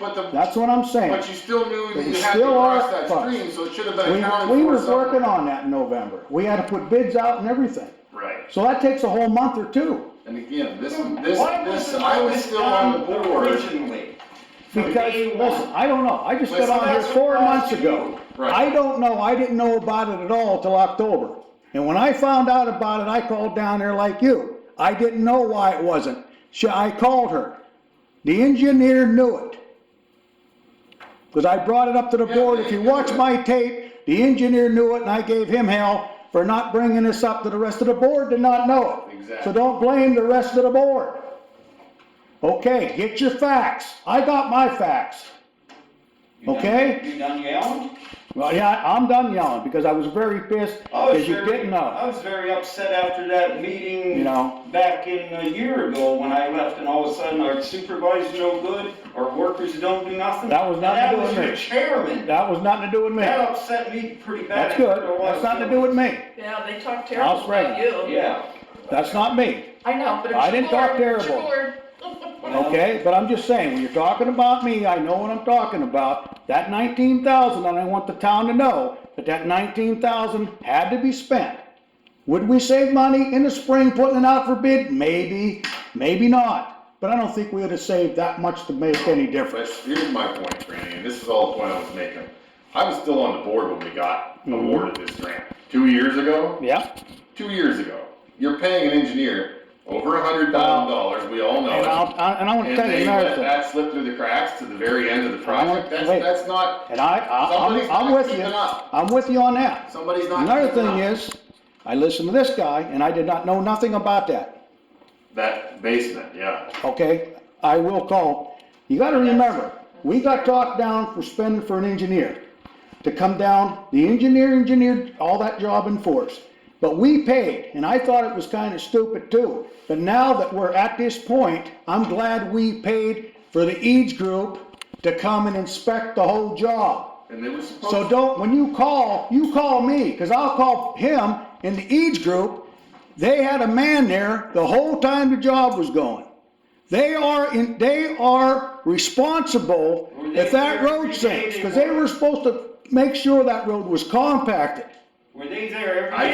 But the, That's what I'm saying. but you still knew that They you had to still are cross that fucked. stream, so it should have We, been accounted for. we was somewhere. working on that in November. We had to put bids out and everything. Right, So that takes a whole month or two. and again, this, this, Why this, wasn't I was this still done on the board. Originally. From Because, day one. listen, I don't know. I just got Listen, on here that's four what months caused ago. you. Right. I don't know. I didn't know about it at all till October. And when I found out about it, I called down there like you. I didn't know why it wasn't. She, I called her. The engineer knew it. Cause I brought it up to the Yeah, board. they If you knew watch it. my tape, the engineer knew it and I gave him hell for not bringing this up to the rest of the board did not know it. Exactly. So don't blame the rest of the board. Okay, get your facts. I got my facts. You done- Okay. You done yelling? Well, yeah, I'm done yelling because I was very pissed I was because you very- didn't I know, was very upset after that meeting. you know? Back in a year ago when I left and all of a sudden our supervisor's no good, our workers don't do nothing. That was nothing to do And with That was me. your chairman. That was nothing to do with me. That upset me pretty bad. That's good. There was- That's nothing to do with me. Yeah, they talk I'll terrible spread about it. you. Yeah. That's not me, I know, but it's your I didn't talk board, it's your terrible. board. okay? But I'm just saying, when you're talking about me, I know what I'm talking about. That nineteen thousand, and I want the town to know that that nineteen thousand had to be spent. Would we save money in the spring putting it out for bid? Maybe, maybe not. But I don't think we would have saved that much to make any But difference. here's my point, Randy, and this is all the point I was making. I was still on the board when we got Mm-hmm. awarded this grant, two years ago, Yeah? two years ago. You're paying an engineer over a hundred thousand dollars, we all know And I'll, it. I- and I wanna And tell you they another let thing, that slip through the cracks to the very end of the I wanna- project. That's, wait. that's not, and I, I, Somebody's I'm, I'm not with you, keeping up. I'm with you on that. somebody's not. Another keeping thing up. is, I listened to this guy, and I did not know nothing about that, That basement, yeah. okay? I will call, you gotta remember, we got talked down for spending for an engineer, to come down, the engineer engineered all that job in force. But we paid, and I thought it was kinda stupid too, but now that we're at this point, I'm glad we paid for the Eads Group to come and inspect the whole job. And they were supposed So don't, when you call, you call me, because I'll call him in the Eads group. They had a man there the whole time the job was going. They are in, they are responsible if that road sinks, because they were supposed to make sure that road was compacted Were they there I-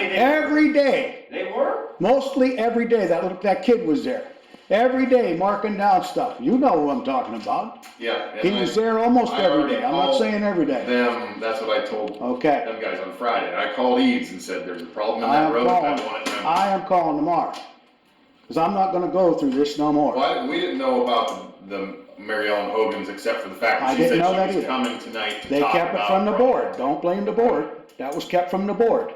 every every day? They- day, They were? mostly every day. That, little- that kid was there. Every day marking down stuff. You know who I'm talking about. Yeah. and He I- was there almost I every already day. I'm not called saying every day. Them, that's what I told Okay. them guys on Friday. I called Eads and said, there's a problem in I that am road, I calling, want it remedied." I am calling tomorrow, because I'm not gonna go through this no more. Why, we didn't know about the Mary Ellen Hogan's except for the fact I that she didn't said know that she was either. coming tonight to They talk kept it about from the it. board, don't blame the board, that was kept from the board.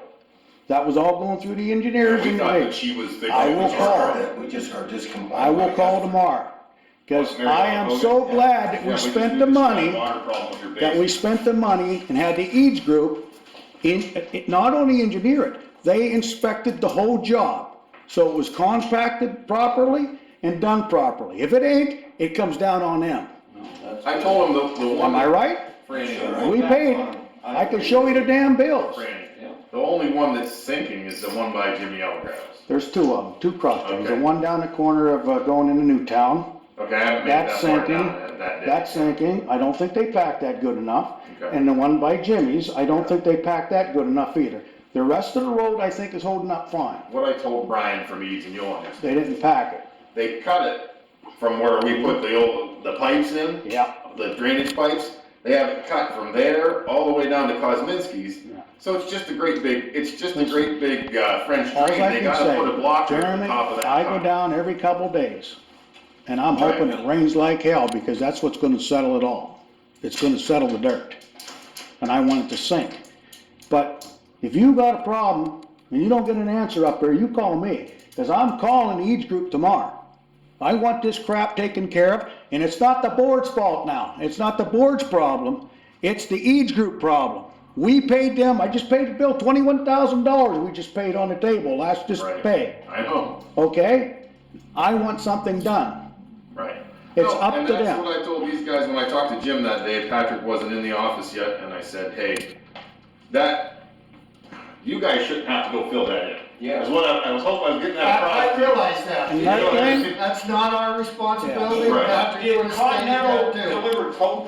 That was all going through the engineers We and the thought that big. she was the. I will call. We just are discombobulated. I will call tomorrow, because I am so glad that we spent the money, that we spent the money and had the Eads Group in, it- not only engineer it, they inspected the whole job, so it was compacted properly and done properly. If it ain't, it comes down on them, I told him the, the one. am I right? Franny, We paid, it. I can show you the damn bills. Yeah. Franny, the only one that's sinking is the one by Jimmy Elgrass. There's two of them, two crossings, the Okay. one down the corner of uh, going into Newtown, Okay, I haven't made That's that part sinking. down that, that day. that's sinking, I don't think they packed that good enough. Okay. And the one by Jimmy's, I don't think they packed that good enough either. The rest of the road, I think, is holding up fine, What I told Brian from Eads and you'll understand, they didn't pack it, they cut it from where we put the old, the pipes in. yeah. the drainage pipes, they have it cut from there all the way down to Kosminski's. Yeah. So it's just a great big, it's just a great big uh, French All drain, I they can gotta put a block say, over the Jeremy, top of that. I go pipe. down every couple days, and I'm hoping it rains like hell, because that's what's gonna settle it all. It's gonna settle the dirt, and I want it to sink. But if you got a problem and you don't get an answer up there, you call me, because I'm calling the Eads Group tomorrow. I want this crap taken care of, and it's not the board's fault now. It's not the board's problem. It's the Eads Group problem. We paid them, I just paid the bill, twenty-one thousand dollars we just paid on the table last just Right. pay, I know, okay? I want something done. right. It's No, up to And that's them. what I told these guys when I talked to Jim that day, Patrick wasn't in the office yet, and I said, hey, that, you guys shouldn't have to go fill that in. That's yeah. what I, I was hoping, I was getting that I I across. realize that. And that thing, That's not our responsibility, we Right. have to do what the state Continental got to do. delivered cold